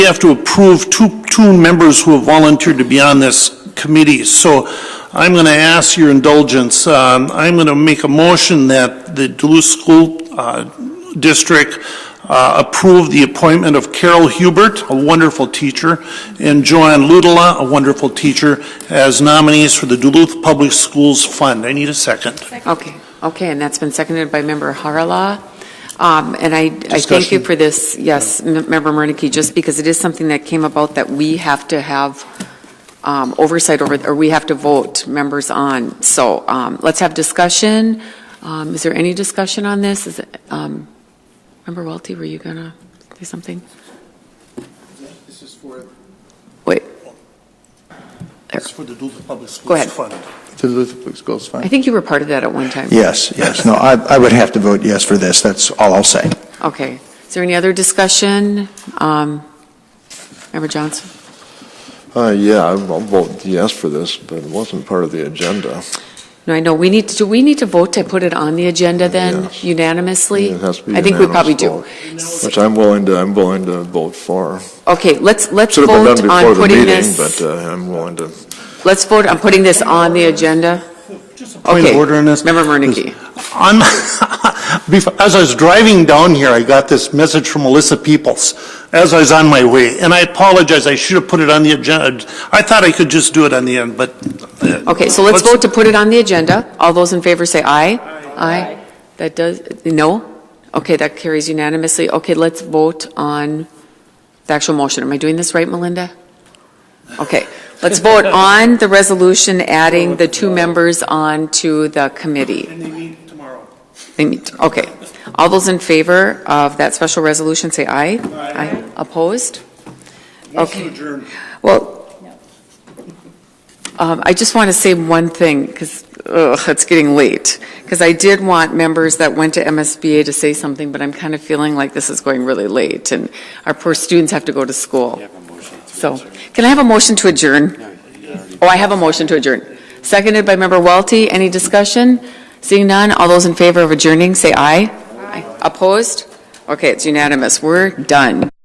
we have to approve two, two members who have volunteered to be on this committee. So I'm going to ask your indulgence. Um, I'm going to make a motion that the Duluth School uh, District uh, approve the appointment of Carol Hubert, a wonderful teacher, and Joanne Ludala, a wonderful teacher, as nominees for the Duluth Public Schools Fund. I need a second. Okay, okay, and that's been seconded by Member Harala. Um, And I, I thank you Discussion. for this, yes, M- Member Murneke, just because it is something that came about that we have to have um, oversight over, or we have to vote members on. So um, let's have discussion. Um, Is there any discussion on this? Is, it, um, Member Welty, were you gonna say something? This is for, Wait, this is for the Duluth Public Schools Go ahead. Fund. To the Public Schools I Fund? think you were part of that at one time. Yes, yes. No, I, I would have to vote yes for this. That's all I'll say. Okay. Is there any other discussion? Um, Member Johnson? Uh, yeah, I'll I'll vote yes for this, but it wasn't part of the agenda. No, I know, we need, to. do we need to vote to put it on the agenda then Yes. unanimously? It has to be I think we unanimous probably do. vote, Which I'm willing to, I'm willing to vote for. Okay, let's, let's Should have been vote done on before the putting meeting, but this, uh, I'm willing to. let's vote on putting this on the agenda. Point of Okay. order on this? Member Murneke. I'm, before, as I was driving down here, I got this message from Melissa Peoples as I was on my way, and I apologize, I should have put it on the agenda. I thought I could just do it on the end, but. uh, Okay, so let's vote to put it on the agenda. All those in favor say aye. Aye. That does, no? Okay, that carries unanimously. Okay, let's vote on the actual motion. Am I doing this right, Melinda? Okay, let's vote on the resolution adding the two members on to the committee. And they meet tomorrow. They meet, okay. All those in favor of that special resolution, say aye. Aye. Opposed? Okay. adjourn. Well, um, I just want to say one thing, because, ugh, it's getting late. Because I did want members that went to MSBA to say something, but I'm kind of feeling like this is going really late, and our poor students have to go to school. So, can I have a motion to adjourn? Oh, I have a motion to adjourn. Seconded by Member Welty. Any discussion? Seeing none, all those in favor of adjourning, say aye. Aye. Opposed? Okay, it's unanimous. We're done.